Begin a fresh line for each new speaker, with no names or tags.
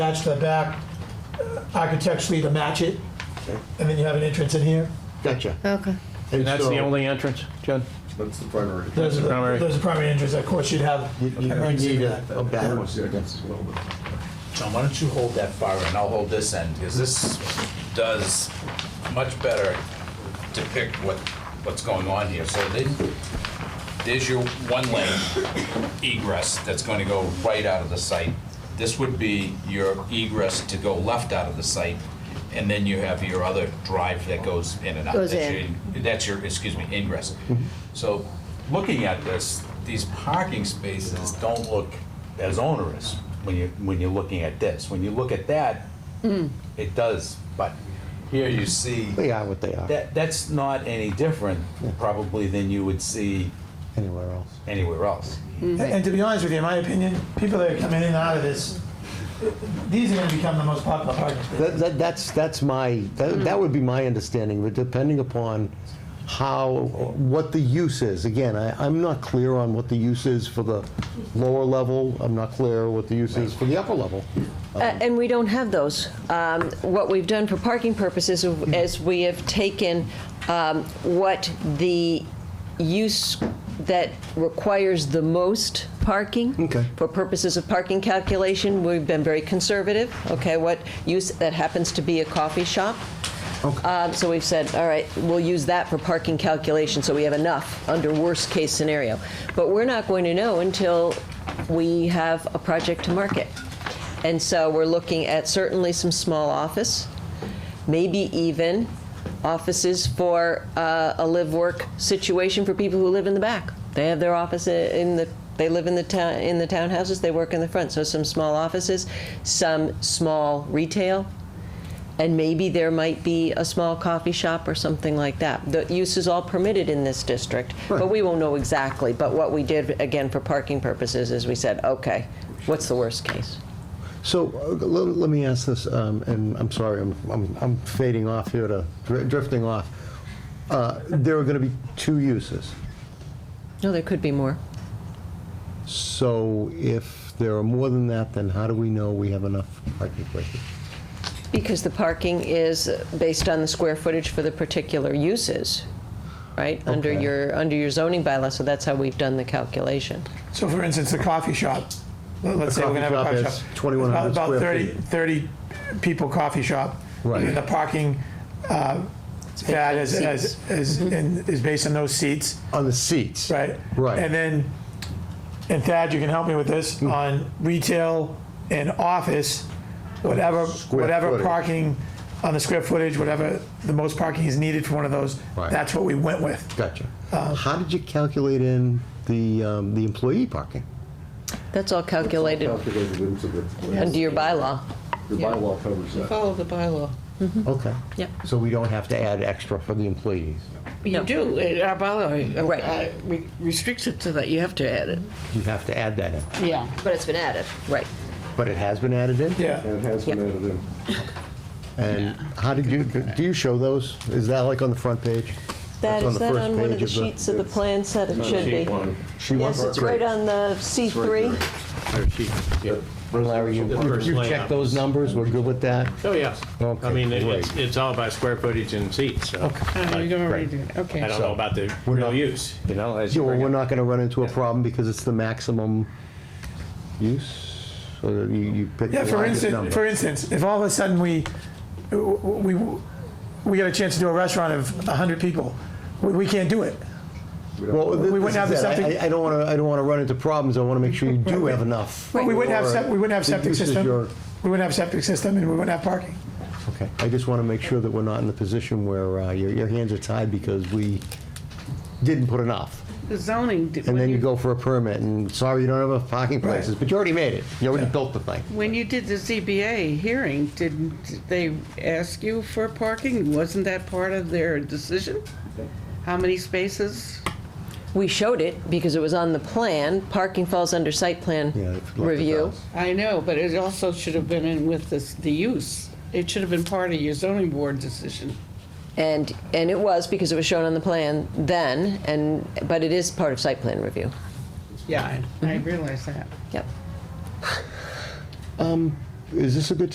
match the back uh, architecturally to match it, and then you have an entrance in here.
Gotcha.
Okay.
And
And that's
so-
the only entrance, Jen?
That's the primary.
There's a,
Primary.
there's a primary entrance, of course, you'd have.
You you would need a a back one.
John, why don't you hold that far end, I'll hold this end, because this does much better depict what, what's going on here. So then, there's your one lane egress that's going to go right out of the site. This would be your egress to go left out of the site, and then you have your other drive that goes in and out.
Goes
That's
in.
your- That's your, excuse me, ingress. So, looking at this, these parking spaces don't look as onerous when you, when you're looking at this. When you look at that,
Hmm.
it does, but here you see.
They are what they are,
That, that's not any different probably than you would see
anywhere else.
anywhere else.
Mm-hmm.
And and to be honest with you, in my opinion, people that are coming in and out of this, these are gonna become the most popular parking spaces.
That, that, that's, that's my, that, that would be my understanding, but depending upon how, what the use is. Again, I, I'm not clear on what the use is for the lower level, I'm not clear what the use is for the upper level.
Uh, And we don't have those. Um, What we've done for parking purposes is we have taken um, what the use that requires the most parking.
Okay.
For purposes of parking calculation, we've been very conservative, okay? What use that happens to be a coffee shop. Uh, So we've said, all right, we'll use that for parking calculation, so we have enough under worst-case scenario. But we're not going to know until we have a project to market. And so we're looking at certainly some small office, maybe even offices for uh, a live-work situation for people who live in the back. They have their office i- in the, they live in the town, in the townhouses, they work in the front. So some small offices, some small retail, and maybe there might be a small coffee shop or something like that. The use is all permitted in this district, but we won't know exactly. But what we did, again, for parking purposes, is we said, okay, what's the worst case?
So, uh, let, let me ask this, um, and I'm sorry, I'm, I'm, I'm fading off here to, dr- drifting off. Uh, there are gonna be two uses.
No, there could be more.
So if there are more than that, then how do we know we have enough parking places?
Because the parking is based on the square footage for the particular uses, right? Under
Okay.
your, under your zoning bylaw, so that's how we've done the calculation.
So for instance, the coffee shop, let- let's
The
say we're gonna have a
coffee
coffee
shop
shop.
is 2100
About-
square
About 30, 30 people coffee shop.
Right.
And The parking, uh, that is, is, is
Mm-hmm.
and is based on those seats.
On the seats?
Right.
Right. Hmm.
And then, and Thad, you can help me with this, on retail and office, whatever,
Square
whatever
footage.
parking, on the square footage, whatever the most parking is needed for one of those,
Right.
that's what we went with.
Gotcha.
Uh,
How did you calculate in the, um, the employee parking?
That's all calculated
Calculated into the,
under your bylaw.
the bylaw covers that.
Follow the bylaw.
Okay.
Mm-hmm. Yep.
So we don't have to add extra for the employees?
No.
You do, it- our bylaw uh,
Right.
uh, re- restricts it to that, you have to add it.
You have to add that in.
Yeah.
But it's been added. Right.
But it has been added in?
Yeah.
And it has been added in.
And how did you, do you show those? Is that like on the front page?
That,
That's
is
the
that
first
on one of
page
the sheets of the
it's-
plan set? It should be.
Sheet one.
She wants
Yes, it's right on the C3.
Or she- yeah.
Larry, you,
The first
you checked
layout.
those numbers, we're good with that?
Oh, yes.
Okay,
I mean, it- it's,
great.
it's all about square footage and seats, so
Uh, You don't already do it,
I
okay.
don't know about the
We're not-
real use, you know, as you
Yeah, well,
bring
we're
it.
not gonna run into a problem because it's the maximum use, so you, you pick
Yeah,
the
for
largest
instance, for
number.
instance, if all of a sudden we, we, we got a chance to do a restaurant of 100 people, we, we can't do it.
Well, th-
we
this
wouldn't have
is
the
it. I-
septic-
I, I don't wanna, I don't wanna run into problems, I wanna make sure you do have enough.
We wouldn't have,
for
sep- we wouldn't have
the
septic
uses
system,
you're-
we wouldn't have septic system, and we wouldn't have parking.
Okay, I just wanna make sure that we're not in the position where, uh, your, your hands are tied because we didn't put enough.
The zoning, d-
And
when
then you
you,
go for a permit, and sorry, you don't have enough parking places, but you already made it, you already built the thing.
when you did the ZBA hearing, didn't they ask you for parking? Wasn't that part of their decision? How many spaces?
We showed it because it was on the plan. Parking falls under site plan
Yeah, it's like
review.
the
I know, but it also should have been in with this, the use. It should have been part of your zoning board decision.
And, and it was because it was shown on the plan then, and, but it is part of site plan review.
Mm-hmm. Yeah, I I realize that.
Yep.
is this a good